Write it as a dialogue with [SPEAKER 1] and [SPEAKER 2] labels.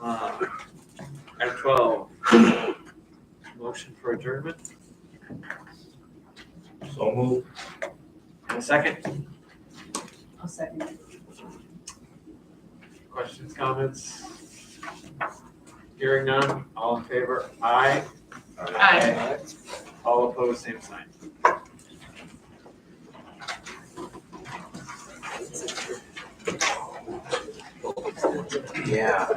[SPEAKER 1] Uh, At twelve, motion for adjournment,
[SPEAKER 2] So move.
[SPEAKER 1] and a second,
[SPEAKER 3] I'll second it.
[SPEAKER 1] questions, comments? Hearing none, all in favor, aye.
[SPEAKER 3] Aye.
[SPEAKER 1] All opposed, same sign.
[SPEAKER 2] Yeah.